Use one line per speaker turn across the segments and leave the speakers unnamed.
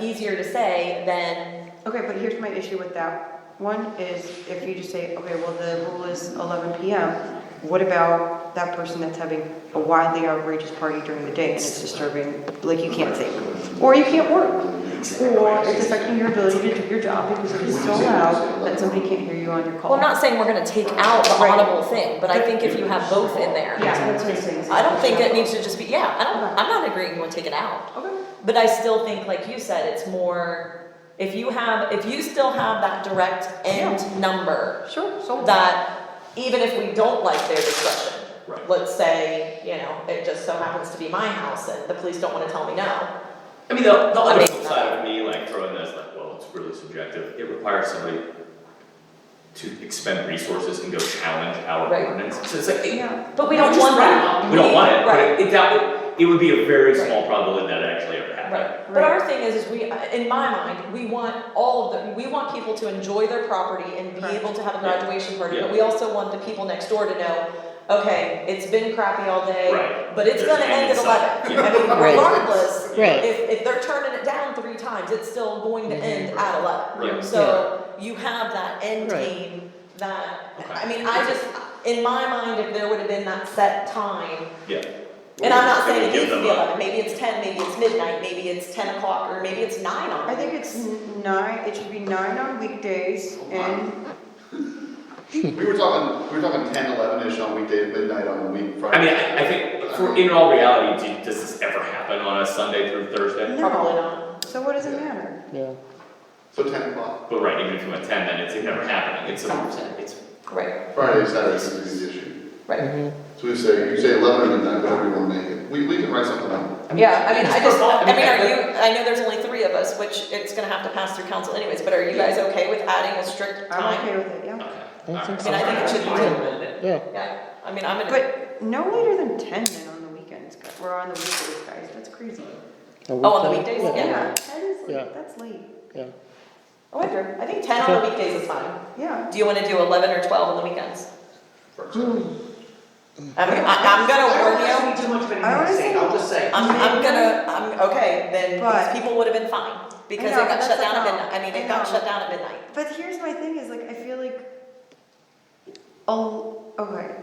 easier to say than,
Okay, but here's my issue with that. One is if you just say, okay, well, the rule is eleven PM, what about that person that's having a wildly outrageous party during the day and it's disturbing, like you can't sleep? Or you can't work? Or it's affecting your ability to do your job because it is so loud that somebody can't hear you on your call.
well, I'm not saying we're gonna take out the
Right.
audible thing, but I think if you have both in there.
Yeah, that's what I'm saying.
I don't think it needs to just be, yeah, I don't,
Okay.
I'm not agreeing with take it out.
Okay.
But I still think, like you said, it's more, if you have, if you still have that direct end number,
Sure, so.
that even if we don't like their discretion,
Right.
let's say, you know, it just so happens to be my house and the police don't wanna tell me no.
I mean, the, the
I
other
mean-
side of me, like throwing this, like, well, it's really subjective, it requires somebody to expend resources and go challenge our
Right.
ordinance, so it's like, hey,
Yeah,
But we don't
just
want
write it
that.
off. We don't want it, but
Right.
it, that would, it would be a very
Right.
small probability that it actually ever happened.
Right, but our
Right.
thing is, is we, in my mind, we want all of the, we want people to enjoy their property and be
Correct.
able to have a
Yeah.
graduation party, but
Yeah.
we also want the people next door to know, okay, it's been crappy all day,
Right.
but it's
There's
gonna
an
end at
end
eleven.
in sight.
I mean,
Right.
regardless,
Right.
if, if they're turning it down three times, it's still going to end at eleven.
Mm-hmm. Right.
So you have that end
Right.
game that, I
Okay.
mean, I just, in my mind, if there would have been that set time,
Yeah.
and I'm not saying it
Give
needs to
them
be
a-
eleven, maybe it's ten, maybe it's midnight, maybe it's ten o'clock, or maybe it's nine on.
I think it's n- nine, it should be nine on weekdays and,
We were talking, we were talking ten, eleven-ish on weekday, midnight on the week,
I mean,
Friday.
I, I think, for, in all reality, do- does this ever happen on a Sunday through Thursday?
No.
Probably not.
so what does it matter?
Yeah.
So ten o'clock,
But right, even if you went ten, then it's never happening, it's a,
100%.
it's,
Right,
Friday, Saturday is gonna be the issue.
right.
So we say, you say eleven or midnight, whatever you wanna make it. We, we can write something up.
Yeah, I mean, I just,
I
I
mean,
mean, are
I-
you, I know there's only three of us, which it's gonna have to pass through council anyways, but are you guys okay with adding a strict
I'm
time?
okay with it, yeah.
okay.
I don't think
I mean, I think it should be
Alright.
Yeah.
Yeah, I mean, I'm gonna,
But no later than ten then on the weekends, guys. we're on the weekdays, guys, that's crazy.
oh, on the weekdays, yeah.
Yeah, that is
Yeah.
late, that's late,
Yeah.
Oh, I wonder, I think ten on the weekdays is fine.
yeah.
Do you wanna do eleven or twelve on the weekends?
for example.
I mean, I, I'm gonna warn you.
I don't see too much of anything to say, I'll just say.
I'm, I'm gonna, I'm, okay, then
But-
these people would have been fine, because it
know,
got
that's
shut
a
down at
no.
midnight, I mean,
I
it got
know.
shut down at midnight.
But here's my thing is like I feel like oh okay.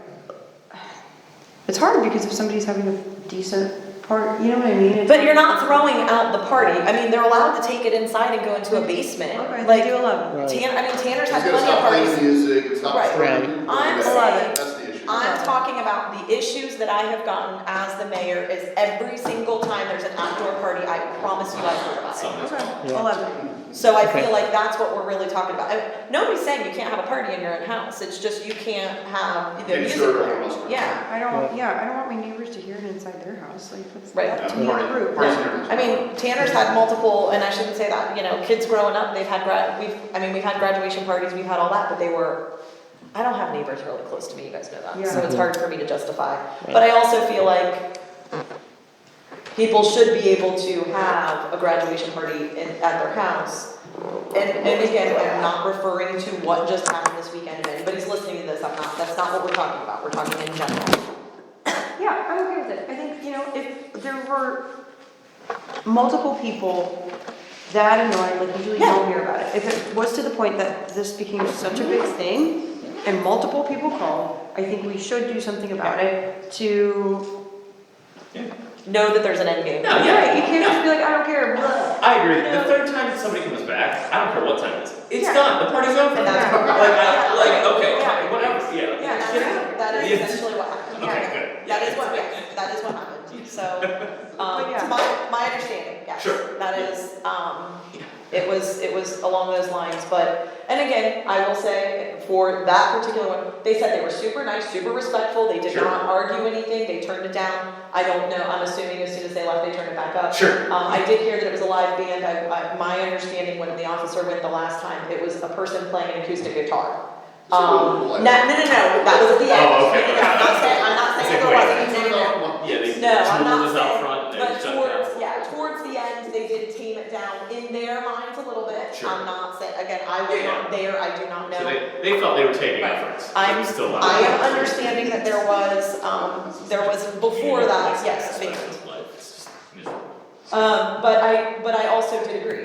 It's hard because if somebody's having a decent part, you know what I mean? It's
But you're not throwing out the party, I mean, they're allowed to take it inside and go into a basement,
okay,
like,
they do eleven.
Right.
Tan, I mean, Tanner's
It's
had
gonna
plenty of
stop playing
parties.
music, it's not.
Right. I'm
disturbing. That's-
saying-
That's the issue.
I'm talking about the issues that I have gotten as the mayor is every single time there's an outdoor party, I promise you I've heard about
Something's wrong.
Okay,
Yeah.
eleven.
it. So I feel
Okay.
like that's what we're really talking about, I- nobody's saying you can't have a party in your own house, it's just you can't have the
Maybe
music.
serve
playing.
everyone else.
Yeah.
I don't want, yeah, I don't want my neighbors to hear it inside their house. Like that's
Right.
that to
Yeah,
me is
party-
rude.
parties
Yeah.
and everything.
I mean, Tanner's had multiple, and I shouldn't say that, you know, kids growing up, they've had grad, we've, I mean, we've had graduation parties, we've had all that, but they were, I don't have neighbors really close to me, you guys know that, so
Yeah.
it's hard for me to justify. But I also feel like people should be able to have a graduation party in, at their house. And, and again, I'm not referring to what just happened this weekend, if anybody's listening to this, I'm not, that's not what we're talking about, we're talking in general.
Yeah, I'm okay with it. I think, you know, if there were multiple people that annoyed, like usually you don't hear about it. If it was to the point that this became such a big thing and multiple people called, I think we should do something about it to,
Know that there's an end game.
No, yeah,
right, you can't just be like, I don't care, blah.
I agree. The third time that somebody comes back, I don't care what time it is. It's
Yeah.
done. The party's over.
And that's-
like, I, like, okay,
Yeah.
fine, whatever. Yeah.
Yeah,
yeah.
that's, that is
Yeah.
essentially what happened.
Okay,
Yeah,
good.
That is what, yeah, that is what happened, so, um,
But yeah.
to my, my understanding, yes.
Sure.
That is, um, it was, it was along those lines, but, and again, I will say, for that particular one, they said they were super nice, super respectful, they did
Sure.
not argue anything, they turned it down. I don't know, I'm assuming as soon as they left, they turned it back up.
Sure.
Um, I did hear that it was a live band, I, I, my understanding when the officer went the last time, it was a person playing an acoustic guitar.
So it was
Um, no, no,
live.
no, no, that was at the end.
Oh, okay.
No, I'm not saying, I'm not saying it
It's like, wait.
wasn't, no, no, no.
Yeah, they
No, I'm
Tool
not
was out front
saying,
and they
but
shut it down.
towards, yeah, towards the end, they did tame it down in their minds a little bit.
Sure.
I'm not saying, again, I was
Yeah, yeah.
not there, I do not know.
So they, they felt they were taking efforts.
I'm,
It's still live.
I am understanding that there was, um, there was before that, yes, a
It's
band.
just miserable.
Um, but I, but I also did agree,